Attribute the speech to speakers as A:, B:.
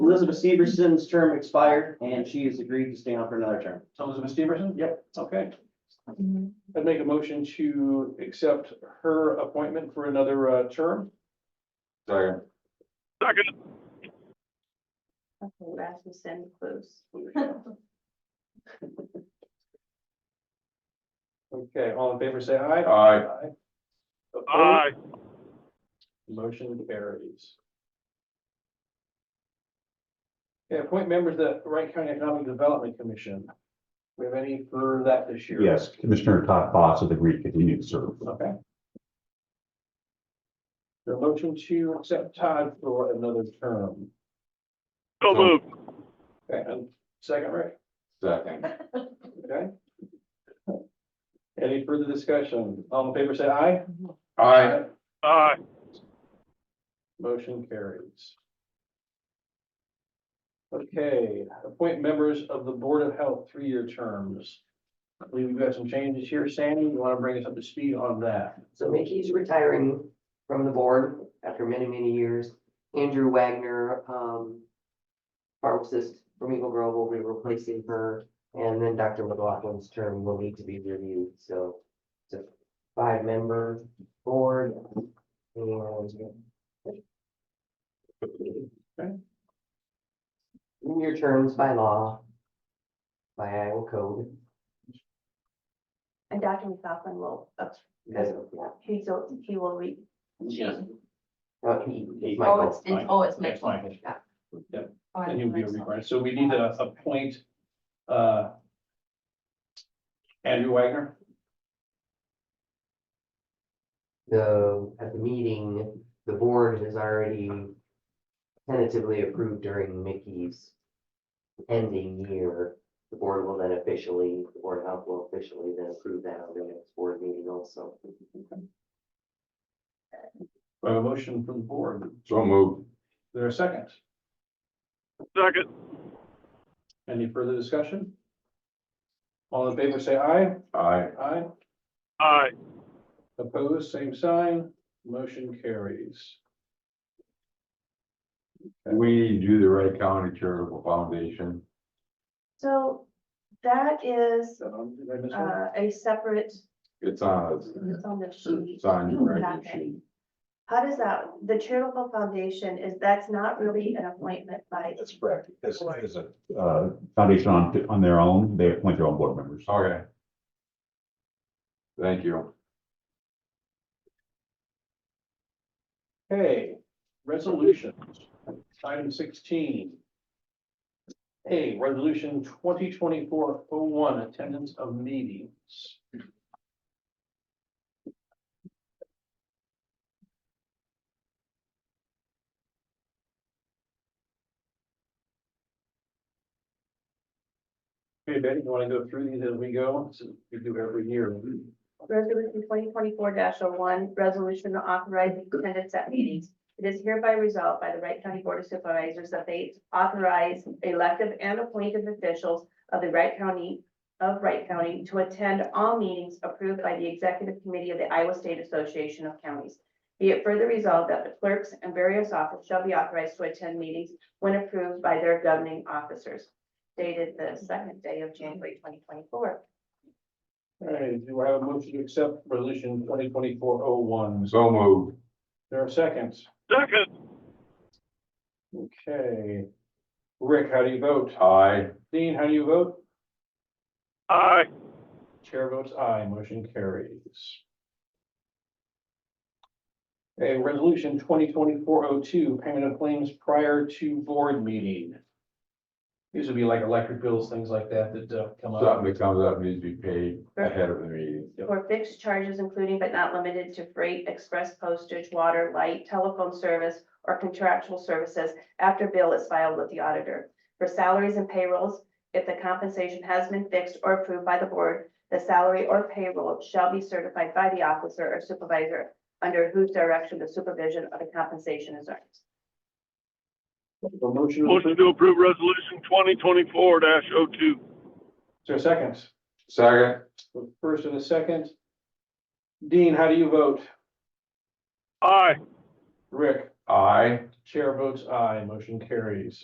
A: Elizabeth Severson's term expired and she has agreed to stay on for another term.
B: So Elizabeth Stevenson? Yep. Okay. I'd make a motion to accept her appointment for another uh, term.
C: Sorry.
D: Okay, Rasmussen, close.
B: Okay, all in favor, say aye.
C: Aye.
B: Opposed? Motion carries. Okay, appoint members to the Wright County Economic Development Commission. We have any for that this year?
E: Yes, Commissioner Todd Foss of the Greek continued to serve.
B: Okay. The motion to accept Todd for another term.
C: So moved.
B: Okay, and second, Rick,
C: Second.
B: okay? Any further discussion? All in favor, say aye.
C: Aye.
F: Aye.
B: Motion carries. Okay, appoint members of the Board of Health three-year terms. I believe we've got some changes here. Sandy, you want to bring us up to speed on that?
G: So Mickey's retiring from the board after many, many years. Andrew Wagner, um, pharmacist from Eagle Grove will be replacing her. And then Dr. McLaughlin's term will need to be reviewed, so it's a five-member board. Your terms by law, by Iowa code.
D: And Dr. McLaughlin will, uh,
G: That's,
D: he's, he will read.
A: Yes.
G: uh, he-
A: He-
G: Michael.
B: Michael.
D: oh, it's
B: Yes, Michael.
D: Yeah.
B: Yep.
D: Oh, I
B: And he'll be a
D: think so.
B: rerun. So we need to appoint, uh, Andrew Wagner.
G: the, at the meeting, the board has already tentatively approved during Mickey's ending year. The board will then officially, the board of health will officially then approve that on the next board meeting also.
B: We have a motion from the board. Is
C: So moved.
B: there a second?
F: Second.
B: Any further discussion? All in favor, say aye.
C: Aye.
B: Aye.
F: Aye.
B: Opposed, same sign. Motion carries.
C: We do the Wright County Charitable Foundation.
D: So that is,
B: Um, did I miss one?
D: uh, a separate,
C: It's on, us.
D: it's on the sheet.
B: Mm-hmm.
C: it's on your record
D: Packet.
C: sheet.
D: How does that, the charitable foundation is, that's not really an appointment by,
E: That's correct. This is a uh, foundation on, on their own. They appoint their own board members.
C: Okay. Thank you.
B: Okay, resolutions. Item sixteen. A, resolution twenty twenty-four oh one, attendance of meetings. Hey, Betty, you want to go through these as we go? This is- We do every year.
D: resolution twenty twenty-four dash oh one, resolution authorizing attendance at meetings. It is hereby resolved by the Wright County Board of Supervisors that they authorize elective and appointed officials of the Wright County, of Wright County to attend all meetings approved by the Executive Committee of the Iowa State Association of Counties. Be it further resolved that the clerks and various officers shall be authorized to attend meetings when approved by their governing officers. Dated the second day of January twenty twenty-four.
B: All right, do I have a motion to accept resolution twenty twenty-four oh one?
C: So moved.
B: There are seconds.
F: Second.
B: Okay. Rick, how do you vote?
C: Aye.
B: Dean, how do you vote?
F: Aye.
B: Chair votes aye, motion carries. Okay, resolution twenty twenty-four oh two, payment of claims prior to board meeting. These would be like electric bills, things like that that uh, come up.
C: Something that comes up needs to be paid ahead of the meeting.
D: for fixed charges including but not limited to freight, express postage, water, light, telephone service, or contractual services after bill is filed with the auditor. For salaries and payrolls, if the compensation has been fixed or approved by the board, the salary or payroll shall be certified by the officer or supervisor under whose direction the supervision of the compensation is earned.
B: A Motion, to approve.
F: Motion to approve resolution twenty twenty-four dash oh two.
B: is there a second?
C: Second.
B: First and a second. Dean, how do you vote?
F: Aye.
B: Rick,
C: Aye.
B: chair votes aye, motion carries.